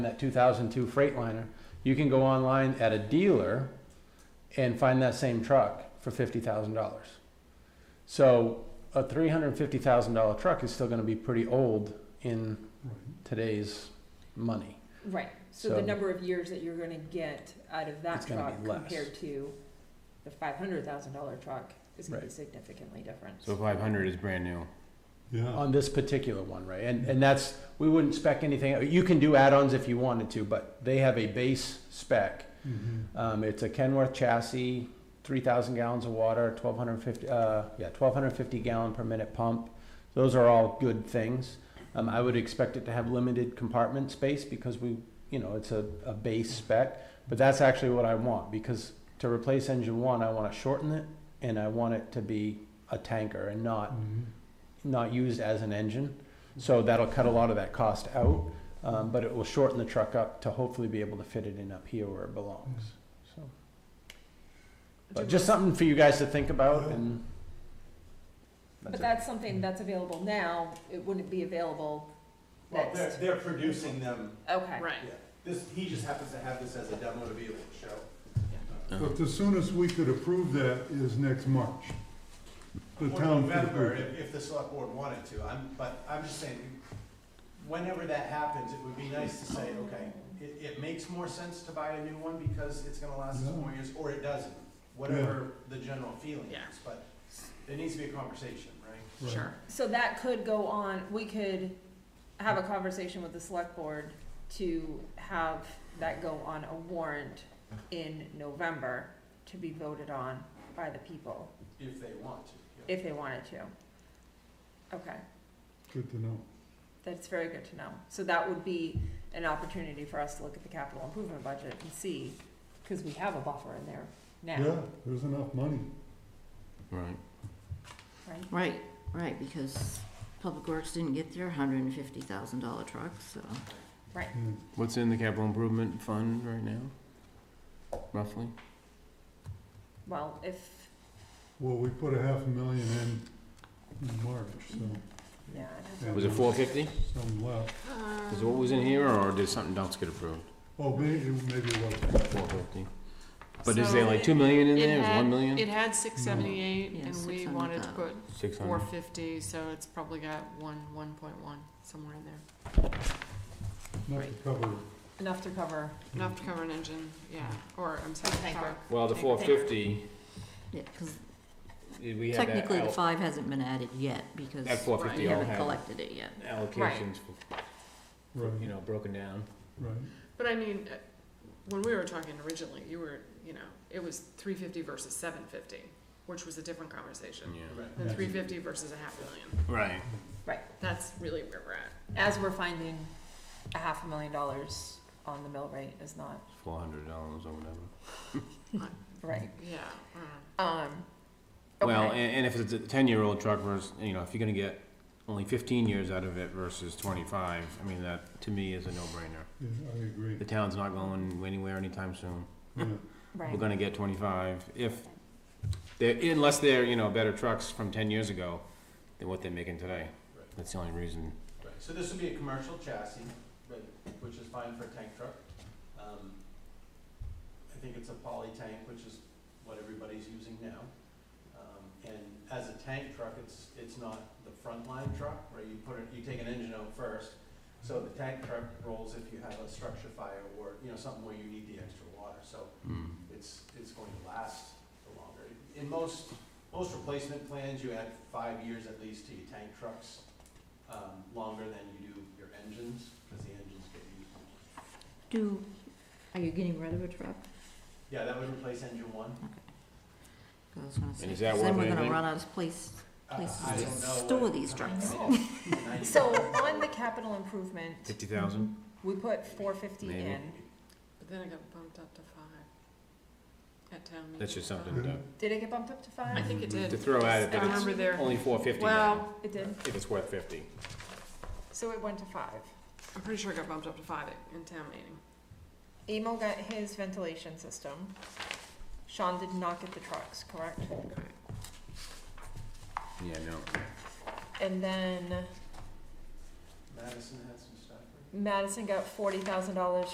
that 2002 Freightliner, you can go online at a dealer and find that same truck for $50,000. So a $350,000 truck is still going to be pretty old in today's money. Right, so the So- number of years that you're gonna get out of that It's gonna truck be less. compared to the five hundred thousand dollar truck is gonna be Right. significantly different. So five hundred is brand new. Uh, Yeah, on this particular one, right? And, and that's, we wouldn't spec anything, you can do add-ons if you wanted to, but they have a base spec. Mhm. Um, it's a Kenworth chassis, three thousand gallons of water, twelve hundred and fifty, uh, yeah, twelve hundred and fifty gallon per minute pump. Those are all good things. Um, I would expect it to have limited compartment space because we, you know, it's a, a base spec. But that's actually what I want, because to replace engine one, I wanna shorten it, and I want it to be a tanker and not Mhm. not used as an engine. So that'll cut a lot of that cost out, um, but it will shorten the truck up to hopefully be able to fit it in up here where it belongs. So, but just something for you guys to think about and. But it. that's something that's available now, it wouldn't be available Well, they're, next, they're producing them, okay. Right. this, he just happens to have this as a demo to be able to show. Uh-huh. But the soonest we could approve that is next March. The Or town could November, approve it. if, if the select board wanted to, I'm, but I'm just saying, whenever that happens, it would be nice to say, okay, it, it makes more sense to buy a new one because it's gonna last us more years, or it doesn't, whatever the general feeling Yeah. is, but there needs to be a conversation, right? Right. Sure. So that could go on, we could have a conversation with the select board to have that go on a warrant in November to be voted on by the people, If they want to. yeah. if they wanted to. Okay. Good to know. That's very good to know. So that would be an opportunity for us to look at the capital improvement budget and see, because we have a buffer in there now, Yeah, there's enough money. Right. right? Right, right, because Public Works didn't get their hundred and fifty thousand dollar truck, so. Yeah. What's in the capital improvement fund right now? Roughly? Well, if, Well, we put a half a million in in March, so. yeah, I'd have to- yeah, Was it four fifty? Some left. Um, Is it what was in here or did something else get approved? Oh, maybe, maybe it was. Four fifty. But is So there like two million in it there? Is had- one million? It Mm-hmm. had six seventy-eight and we wanted to put Six four hundred? fifty, so it's probably got one, one point one, somewhere in there. Not to Right. cover. enough to cover, Enough to cover an engine, yeah, or, I'm sorry, Tanker. car. Well, the four fifty, Yeah, because we had that technically the al- five hasn't been added yet, because that four Right. fifty we all haven't had collected it yet. allocations, for- you Right, know, broken down. right. But I mean, uh, when we were talking originally, you were, you know, it was three fifty versus seven fifty, which was a different conversation. Yeah. Right. Than Yeah. three fifty versus a half million, Right. that's really where we're at. as we're finding a half a million dollars on the mill rate is not Four hundred dollars or whatever. right. Yeah, mm. I don't know. Um, Well, okay. and, and if it's a ten-year-old truck versus, you know, if you're gonna get only fifteen years out of it versus twenty-five, I mean, that, to me, is a no-brainer. Yeah, I agree. The town's not going anywhere anytime soon. Yeah. Right. We're gonna get twenty-five, if, they're, unless they're, you know, better trucks from ten years ago than what they're making today. Right. That's the only reason. Right, so this would be a commercial chassis, right, which is fine for a tank truck. Um, I think it's a poly tank, which is what everybody's using now. Um, and as a tank truck, it's, it's not the frontline truck, where you put it, you take an engine out first. So the tank truck rolls if you have a structure fire or, you know, something where you need the extra water, so it's, it's going to last for longer. In most, most replacement plans, you add five years at least to your tank trucks, um, longer than you do your engines, because the engines get used. Do, are you getting rid of a truck? Yeah, that would replace engine one. 'Cause I was gonna say, is that 'cause worth then we're gonna anything? run out of place, Uh, places I to don't know store what- these trucks. Ninety- So on the capital improvement, Fifty thousand? Mm-hmm. we put four fifty Maybe. in. But then it got bumped up to five at town meeting. That's just something to, Did it get bumped up to I five? think it did. to throw at I it, that remember there, it's only four fifty now, well, It did. if it's worth fifty. So it went to five. I'm pretty sure it got bumped up to five at- in town meeting. Emil got his ventilation system. Sean did not get the trucks, correct? Yeah, no. And then Madison had some stuff. right? Madison got forty thousand dollars